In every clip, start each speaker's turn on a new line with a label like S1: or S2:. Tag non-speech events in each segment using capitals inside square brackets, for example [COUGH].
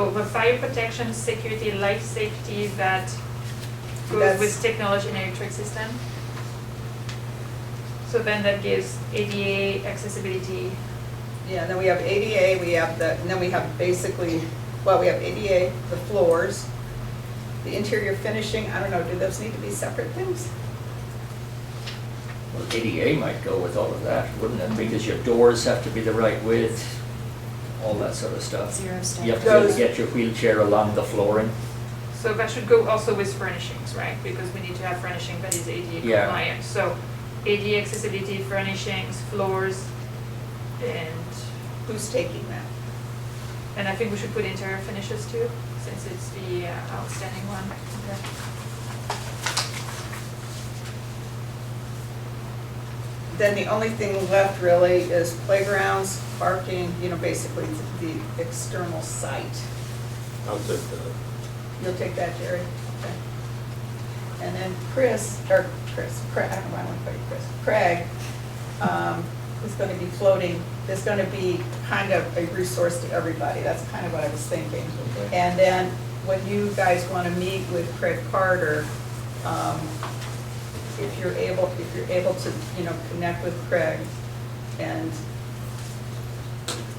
S1: over fire protection, security, life safety that goes
S2: That's-
S1: with technology and electric system. So then that gives ADA accessibility,
S2: Yeah, and then we have ADA, we have the, and then we have basically, well, we have ADA, the floors, the interior finishing, I don't know, do those need to be separate things?
S3: Well, ADA might go with all of that, wouldn't it? Because your doors have to be the right width, all that sort of stuff.
S4: Zero step.
S3: You have to be able
S2: Those-
S3: to get your wheelchair along the flooring.
S1: so that should go also with furnishings, right? Because we need to have furnishing that is ADA
S3: Yeah.
S1: compliant, so ADA accessibility, furnishings, floors, and
S2: Who's taking that?
S1: And I think we should put interior finishes too, since it's the uh, outstanding one.
S2: Then the only thing left really is playgrounds, parking, you know, basically the external site.
S5: I'll take that.
S2: You'll take that, Jerry? Okay. And then Chris, or Chris, Craig, I don't know why I want to call you Chris, Craig, um, is gonna be floating, is gonna be kind of a resource to everybody, that's kind of what I was thinking.
S5: Okay.
S2: And then when you guys wanna meet with Craig Carter, um, if you're able, if you're able to, you know, connect with Craig and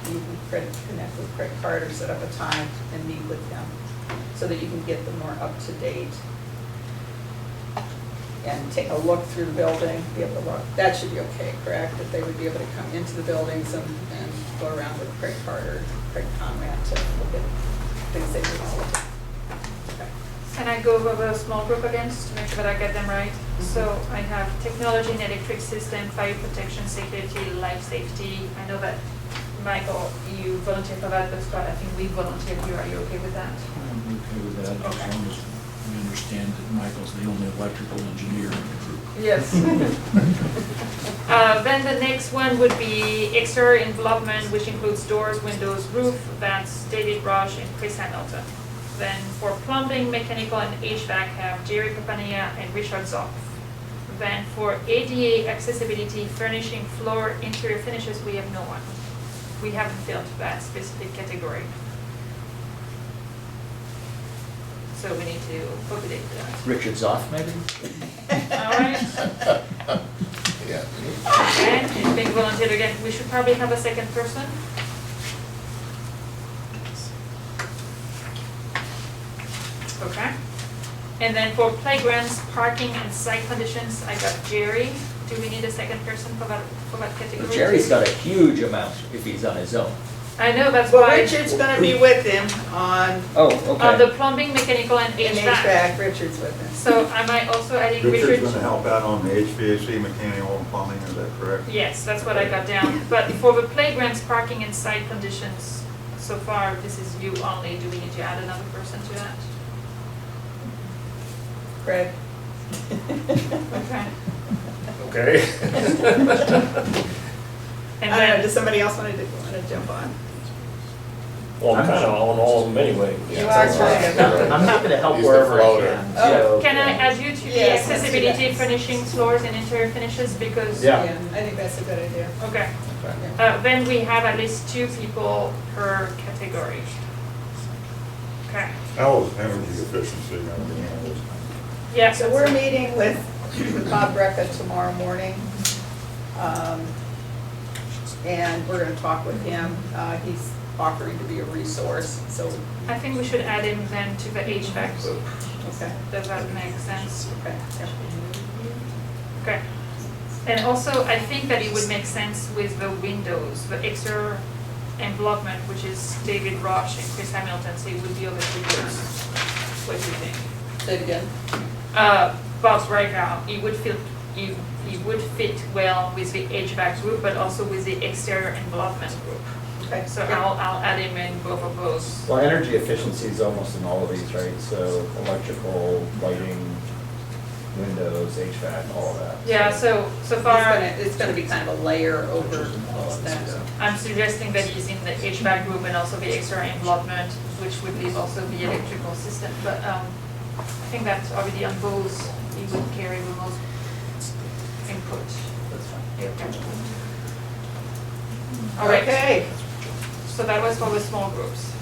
S2: you can cre- connect with Craig Carter, set up a time and meet with him so that you can get them more up to date. And take a look through the building, be able to look, that should be okay, correct? That they would be able to come into the buildings and, and go around with Craig Carter, Craig Conrad to look at things they can all look at. Okay.
S1: Can I go over the small group again, just to make sure that I get them right? So I have technology and electric system, fire protection, security, life safety. I know that, Michael, you volunteer for that, but Scott, I think we volunteered you. Are you okay with that?
S6: I'm okay with that, as
S1: Okay.
S6: long as we understand that Michael's the only electrical engineer in the group.
S2: Yes.
S1: Uh, Then the next one would be exterior envelopment, which includes doors, windows, roof. That's David Rush and Chris Hamilton. Then for plumbing, mechanical, and HVAC have Jerry Papania and Richard Zoff. Then for ADA accessibility, furnishing, floor, interior finishes, we have no one. We haven't filled that specific category. So we need to populate that.
S3: Richard's off, maybe?
S1: [LAUGHS] All right?
S5: Yeah.
S1: Okay, big volunteer again, we should probably have a second person. Okay, and then for playgrounds, parking and site conditions, I got Jerry, do we need a second person for that, for that category?
S3: Well, Jerry's got a huge amount if he's on his own.
S1: I know, that's
S2: Well,
S1: why,
S2: Richard's gonna be with him on,
S3: Oh,
S1: on Uh, the
S3: okay.
S1: plumbing, mechanical and
S2: in
S1: HVAC,
S2: HVAC, Richard's with him.
S1: so am I also adding Richard?
S7: Richard's gonna help out on the HVAC, mechanical and plumbing, is that correct?
S1: Yes, that's what I got down, but for the playgrounds, parking and site conditions, so far, this is you only, do we need to add another person to that? [LAUGHS]
S2: Craig.
S5: Okay.
S1: Okay.
S2: I
S1: And
S2: don't know,
S1: then,
S2: does somebody else wanna, do- wanna jump on?
S8: Well, I'm kind of on all of them anyway.
S2: You are trying
S3: I'm happy to help
S5: He's the
S3: wherever I
S5: floater.
S3: can,
S2: Oh,
S3: so.
S1: can I add you to the
S2: Yes, let's do that.
S1: accessibility, finishing floors and interior finishes, because?
S8: Yeah.
S2: I think that's a good idea.
S1: Okay, uh, then we have at least two people per category. Okay,
S7: How is energy efficiency gonna be handled?
S1: yeah,
S2: So we're meeting with Bob Brecka tomorrow morning. um, And we're gonna talk with him. Uh, He's offering to be a resource, so,
S1: I think we should add him then to the HVAC group,
S2: okay,
S1: does that make sense?
S2: okay.
S1: Okay. And also, I think that it would make sense with the windows, the exterior envelopment, which is David Roche and Chris Hamilton, so it would be over three years. What do you think?
S2: Say it again.
S1: Uh, Bob's right now, it would feel, it, it would fit well with the HVAC group, but also with the exterior envelopment group.
S2: Okay,
S1: So I'll, I'll add him in both of those.
S8: Well, energy efficiency is almost in all of these, right? So electrical, lighting, windows, HVAC, all of that.
S1: Yeah, so, so
S2: It's
S1: far,
S2: gonna, it's gonna be kind of a layer over all of that.
S1: I'm suggesting that he's in the HVAC group and also the extra envelopment, which would leave also the electrical system, but, um, I think that's already on Bose, he would carry the most input.
S3: That's fine.
S1: All right,
S2: Okay,
S1: so that was for the small groups.